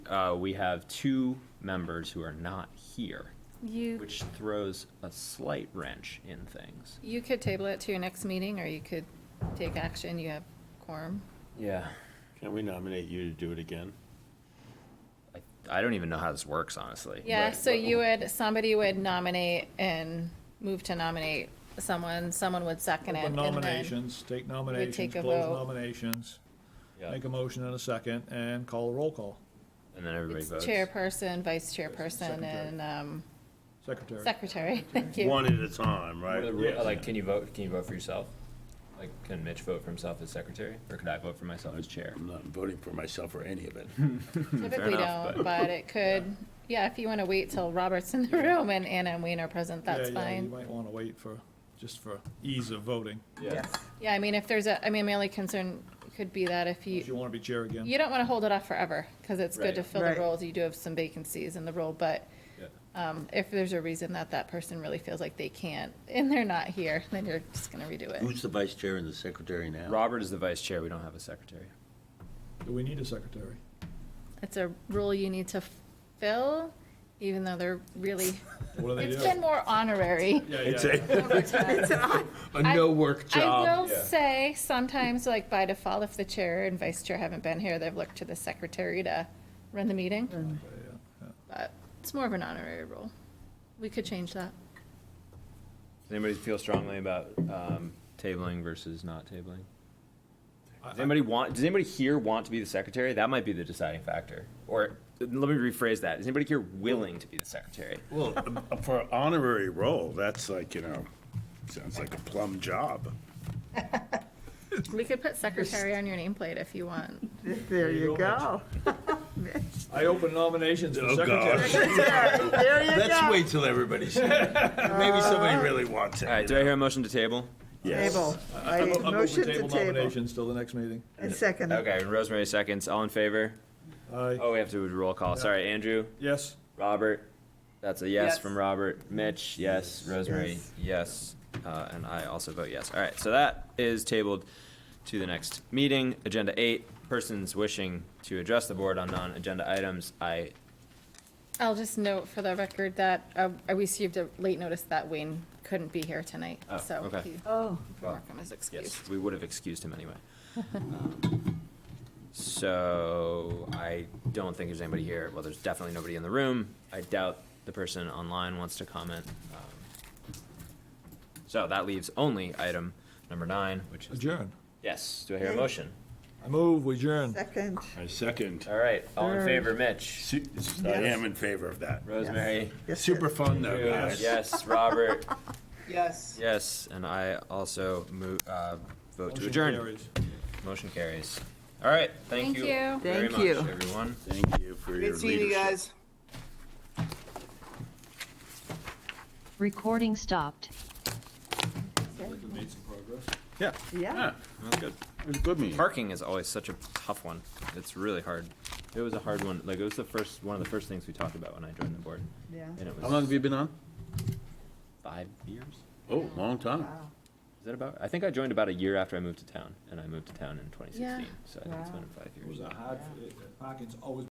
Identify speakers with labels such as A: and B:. A: uh, we have two members who are not here,
B: You,
A: which throws a slight wrench in things.
B: you could table it to your next meeting, or you could take action, you have quorum.
A: Yeah.
C: Can we nominate you to do it again?
A: I, I don't even know how this works, honestly.
B: Yeah,
C: Right.
B: so you would, somebody would nominate and move to nominate someone, someone would second it.
D: Open
B: and then-
D: nominations, take nominations,
B: take a
D: close
B: vote.
D: nominations,
A: Yeah.
D: make a motion and a second, and call a roll call.
A: And then everybody
B: It's
A: votes.
B: chairperson, vice chairperson,
D: Secretary.
B: and um,
D: Secretary.
B: secretary, thank you.
C: One at a time,
A: What
C: right?
A: are the ru-
C: Yes.
A: Like, can you vote, can you vote for yourself? Like, can Mitch vote for himself as secretary, or could I vote for myself as chair?
C: I'm not voting for myself or any of it.
B: Typically
A: enough,
B: don't, but it could, yeah, if you want to wait till Robert's in the room and Anna and Wayne are present,
D: Yeah,
B: that's
D: yeah, You
B: fine.
D: might want to wait for, just for ease of voting.
A: Yeah.
B: Yeah, I mean, if there's a, I mean, my only concern could be that if
D: If you
B: you,
D: want to be chair again.
B: you don't want to hold it off forever, because it's good to
A: Right.
B: fill the
E: Right.
B: roles, you do have some vacancies in the role, but
A: Yeah.
B: um, if there's a reason that that person really feels like they can't, and they're not here, then you're just gonna redo it.
C: Who's the vice chair and the secretary now?
A: Robert is the vice chair, we don't have a secretary.
D: Do we need a secretary?
B: It's a role you need to fill, even though they're really,
D: What do they do?
B: it's been more honorary.
D: Yeah,
C: It's
D: yeah, yeah.
C: a, a
B: I-
C: no-work
B: I will
C: job.
B: say, sometimes, like by default, if the chair and vice chair haven't been here, they've looked to the secretary to run the meeting. But it's more of an honorary role. We could change that.
A: Does anybody feel strongly about um, tabling versus not tabling? Does
D: I- I-
A: anybody want? Does anybody here want to be the secretary? That might be the deciding factor. Or let me rephrase that: Is anybody here willing to be the secretary?
C: Well, uh, for honorary role, that's like, you know, sounds like a plum job.
B: We could put secretary on your nameplate if you want.
E: There you go.
D: I open nominations for
C: Oh,
D: secretary.
C: gosh.
E: There you
C: Let's
E: go.
C: wait till everybody's here. Maybe somebody really wants it.
A: All right. Do I hear a motion to table?
C: Yes.
E: Table.
D: I'm-
E: I
D: I'm open
E: motion to
D: table
E: table.
D: nominations till the next meeting.
E: I second it.
A: Okay. Rosemary seconds. All in favor?
D: Aye.
A: Oh, we have to do a roll call. Sorry, Andrew.
D: Yes,
A: Robert. That's a yes,
E: Yes.
A: from Robert. Mitch. Yes. Rosemary. Yes. Uh, and I also vote yes. All right. So that is tabled to the next meeting. Agenda eight. Persons wishing to address the board on non-agenda items. I
B: I'll just note for the record that uh, I received a late notice that Wayne couldn't be here tonight,
A: Oh,
B: so
A: okay.
B: he-
E: Oh,
B: mark him as excused.
A: Yes, we would have excused him anyway. Um, So I don't think there's anybody here. Well, there's definitely nobody in the room. I doubt the person online wants to comment. Um, So that leaves only item number nine, which is,
D: adjourn.
A: yes, do I hear a motion?
D: I move, we adjourn.
E: second.
C: I second.
A: All right, all in favor, Mitch?
C: Su- I am in favor of that.
A: Rosemary?
E: Yes, sir.
C: Super fun though, guys.
A: Yes, Robert?
E: Yes.
A: Yes, and I also move, uh, vote to
D: Motion
A: adjourn.
D: carries.
A: Motion carries. All right, thank
B: Thank
A: you
B: you.
A: very
E: Thank
A: much,
E: you.
A: everyone.
C: Thank you for your
E: Good seeing you
C: leadership.
E: guys.
F: Recording stopped.
D: Made some progress.
C: Yeah,
E: Yeah.
C: yeah, that's good. It was a good meeting.
A: Parking is always such a tough one. It's really hard. It was a hard one. Like it was the first one of the first things we talked about when I joined the board.
E: Yeah.
A: And it was
C: How long have you been on?
A: five years.
C: Oh, long time.
E: Wow.
A: Is that about? I think I joined about a year after I moved to town, and I moved to town in 2016.
B: Yeah.
A: So I think it's
E: Wow.
A: been five years.
D: It was a hard, it- parking's always